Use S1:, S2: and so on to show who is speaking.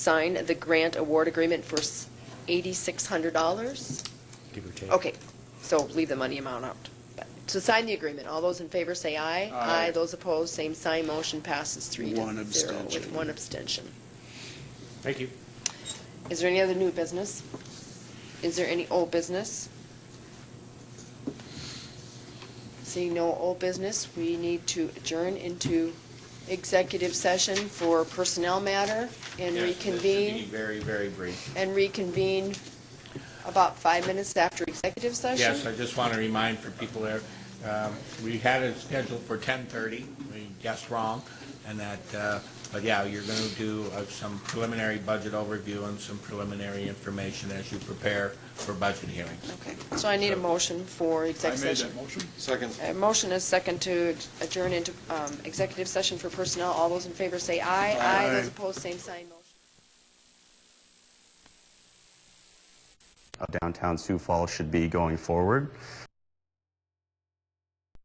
S1: sign the grant award agreement for s- $8,600?
S2: give or take.
S1: Okay, so leave the money amount out. But To sign the agreement, all those in favor say aye.
S3: Aye.
S1: Those opposed, same sign, motion passes three to
S3: One
S1: zero with
S3: abstention.
S1: one abstention.
S2: Thank you.
S1: Is there any other new business? Is there any old business? Seeing no old business, we need to adjourn into executive session for personnel matter and
S4: Yes, this should be
S1: reconvene,
S4: Very, very brief.
S1: and reconvene about five minutes after executive session?
S4: Yes, I just want to remind for people there, um, we had it scheduled for 10:30, we guessed wrong, and that, uh, but yeah, you're going to do uh, some preliminary budget overview and some preliminary information as you prepare for budget hearings.
S1: Okay, so I need a motion for
S3: I
S1: executive
S3: made
S1: session.
S3: that motion.
S5: Second.
S1: A motion is second to adjourn into um, executive session for personnel. All those in favor say aye.
S3: Aye.
S1: Those opposed, same sign, motion
S6: of downtown Sioux Falls should be going forward.